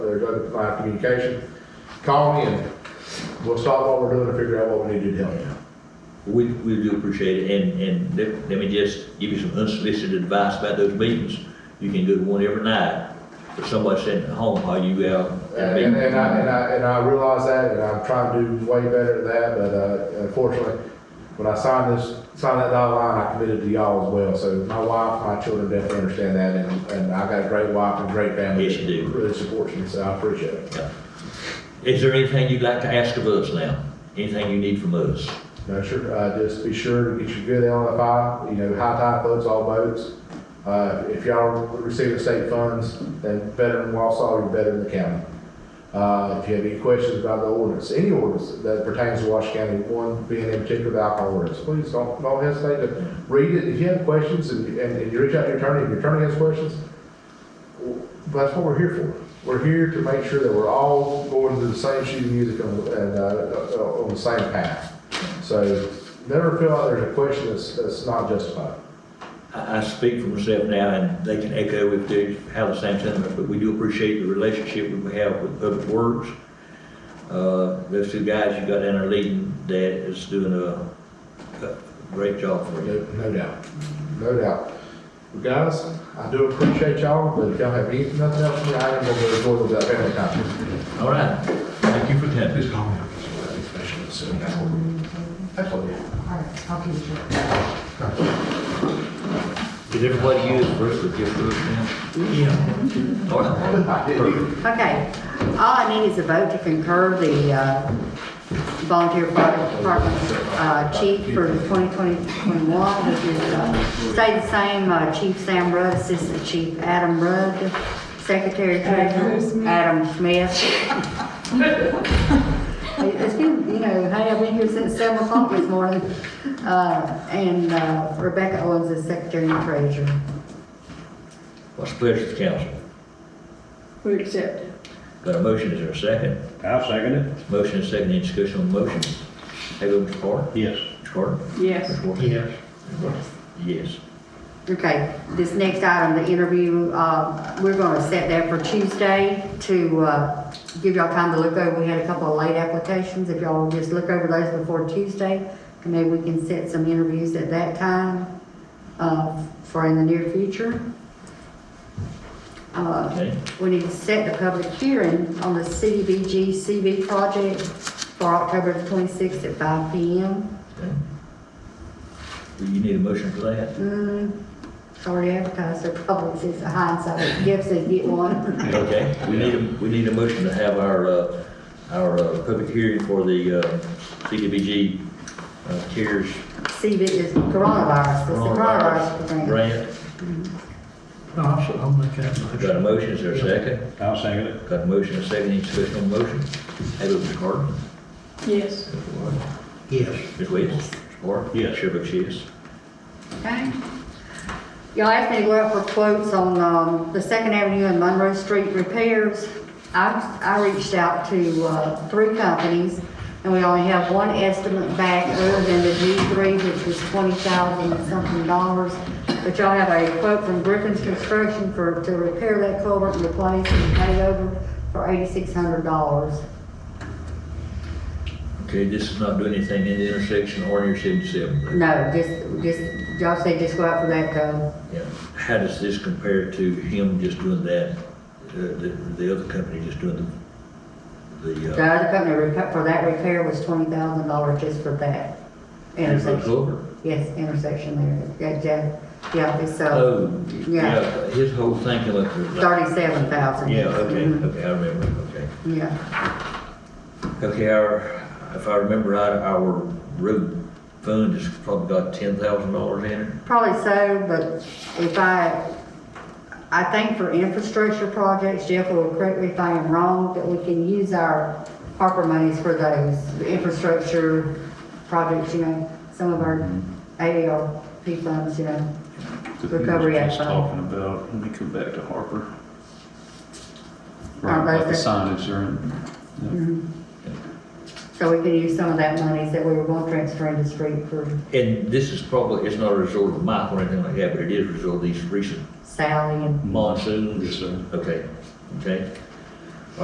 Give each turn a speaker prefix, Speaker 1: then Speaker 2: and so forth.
Speaker 1: there's open line communication. Call me and we'll stop what we're doing and figure out what we need to do to help you.
Speaker 2: We, we do appreciate it, and, and let, let me just give you some unsolicited advice about those meetings. You can go to one every night, but somebody sitting at home while you out. at a
Speaker 1: And, and I, and
Speaker 2: meeting.
Speaker 1: I, and I realize that, and I'm trying to do way better at that, but, uh, unfortunately, when I signed this, signed that dotted line, I committed to y'all as well, so my wife, my children definitely understand that, and, and I got a great wife and great family.
Speaker 2: Yes, you do.
Speaker 1: that Really supports me, so I appreciate it.
Speaker 2: Is there anything you'd like to ask of us now? Anything you need from us?
Speaker 1: No, sure, uh, just be sure to get your good LFI, you know, high tide floats all boats. Uh, if y'all receiving state funds, then veteran Wausau, you're better than the county. Uh, if you have any questions about the ordinance, any ordinance that pertains to Wash County, one being in particular the alcohol ordinance, please don't, don't hesitate to read it. If you have questions and, and and you reach out to your attorney, if your attorney has questions, w- that's what we're here for. We're here to make sure that we're all going through the same sheet of music and, and, uh, uh, on the same path. So never feel like there's a question that's, that's not justified.
Speaker 2: I, I speak for myself now, and they can echo if they have the same sentiments, but we do appreciate the relationship we have with Public Works. Uh, those two guys you got down there leading, that is doing a, a great job for you.
Speaker 1: No, no doubt, no doubt. Well, Guys, I do appreciate y'all, but if y'all have anything, nothing else, I am gonna go forward with that family time.
Speaker 2: All right, thank you for coming.
Speaker 1: Please call me. Absolutely.
Speaker 3: All right, I'll keep it short.
Speaker 2: Did everybody use first with your first name? Yeah. All right.
Speaker 1: I did.
Speaker 3: Okay, all I need is a vote to concur the uh, volunteer fire department uh, chief for 2020-21, which is, uh, stay the same, uh, Chief Sam Rudd, Assistant Chief Adam Rudd, Secretary Treasurer Adam Smith. It's been, you know, hey, I've been here since seven o'clock this morning, Uh, and uh, Rebecca Owens is Secretary and Treasurer.
Speaker 2: What's the pleasure of the council?
Speaker 4: We accept it.
Speaker 2: Got a motion, is there a second?
Speaker 5: I'll second it.
Speaker 2: Motion and second, any discussion on the motion? Have you, Mr. Carter?
Speaker 5: Yes.
Speaker 2: Mr. Carter?
Speaker 4: Yes.
Speaker 2: Mr. Walker? Yes. Yes.
Speaker 3: Okay, this next item, the interview, uh, we're gonna set that for Tuesday to, uh, give y'all time to look over. We had a couple of late applications. If y'all will just look over those before Tuesday, and maybe we can set some interviews at that time, uh, for in the near future. Uh,
Speaker 2: Okay.
Speaker 3: we need to set the public hearing on the CDBG CV project for October the twenty-sixth at five P M.
Speaker 2: Okay. Do you need a motion for that?
Speaker 3: Mm, it's already advertised, so probably it's a hindsight, Gibbs said get one.
Speaker 2: Okay, we need, a we need a motion to have our, uh, our uh, public hearing for the uh, CDBG uh, CARES
Speaker 3: CV is coronavirus, it's the
Speaker 2: coronavirus
Speaker 3: coronavirus thing.
Speaker 2: grant.
Speaker 6: No, I'll, s- I'll make that motion.
Speaker 2: Got a motion, is there a second?
Speaker 5: I'll second it.
Speaker 2: Got a motion, and a second, any discussion on the motion? Have you, Mr. Carter?
Speaker 4: Yes.
Speaker 6: Yes,
Speaker 2: Ms. Williams? Mr. Moore?
Speaker 5: Yes.
Speaker 2: Sure, but she is.
Speaker 3: Okay. Y'all asked me to go out for quotes on, um, the Second Avenue and Monroe Street repairs. I, I reached out to, uh, three companies, and we only have one estimate back other than the G three, which was twenty thousand something dollars. But y'all have a quote from Griffin's Construction for, to repair that culvert and replace and pave over for eighty-six hundred dollars.
Speaker 2: Okay, this is not doing anything in the intersection or in your seventy-seven.
Speaker 3: No, just, just, y'all say just go out for that, uh,
Speaker 2: Yeah. How does this compare to him just doing that, uh, the, the other company just doing the, the,
Speaker 3: The
Speaker 2: uh,
Speaker 3: other company repa- for that repair was twenty thousand dollars just for that
Speaker 2: the
Speaker 3: intersection.
Speaker 2: culvert?
Speaker 3: Yes, intersection there, yeah, yeah, yeah, it's, uh,
Speaker 2: Oh,
Speaker 3: Yeah.
Speaker 2: yeah, his whole thing came up to. like-
Speaker 3: thirty-seven thousand.
Speaker 2: Yeah, okay,
Speaker 3: Mm-hmm.
Speaker 2: okay, I remember, okay.
Speaker 3: Yeah,
Speaker 2: Okay, our, if I remember right, our road fund has probably got ten thousand dollars in it.
Speaker 3: probably so, but if I, I think for infrastructure projects, Jeff will correct me if I am wrong, that we can use our Harper monies for those the infrastructure projects, you know, some of our
Speaker 2: Mm-hmm.
Speaker 3: AARP funds, you know. Recovery Act
Speaker 7: Just Talking about, let me come back to Harper.
Speaker 3: Our
Speaker 7: Right, about the
Speaker 3: budget.
Speaker 7: signage there and-
Speaker 3: So we could use some of that monies that we were going to transfer into street for
Speaker 2: And this is probably, it's not a result of Michael or anything like that, but it is a result of these recent
Speaker 3: Sally and,
Speaker 2: monsoons.
Speaker 7: Yes, sir.
Speaker 2: Okay, okay.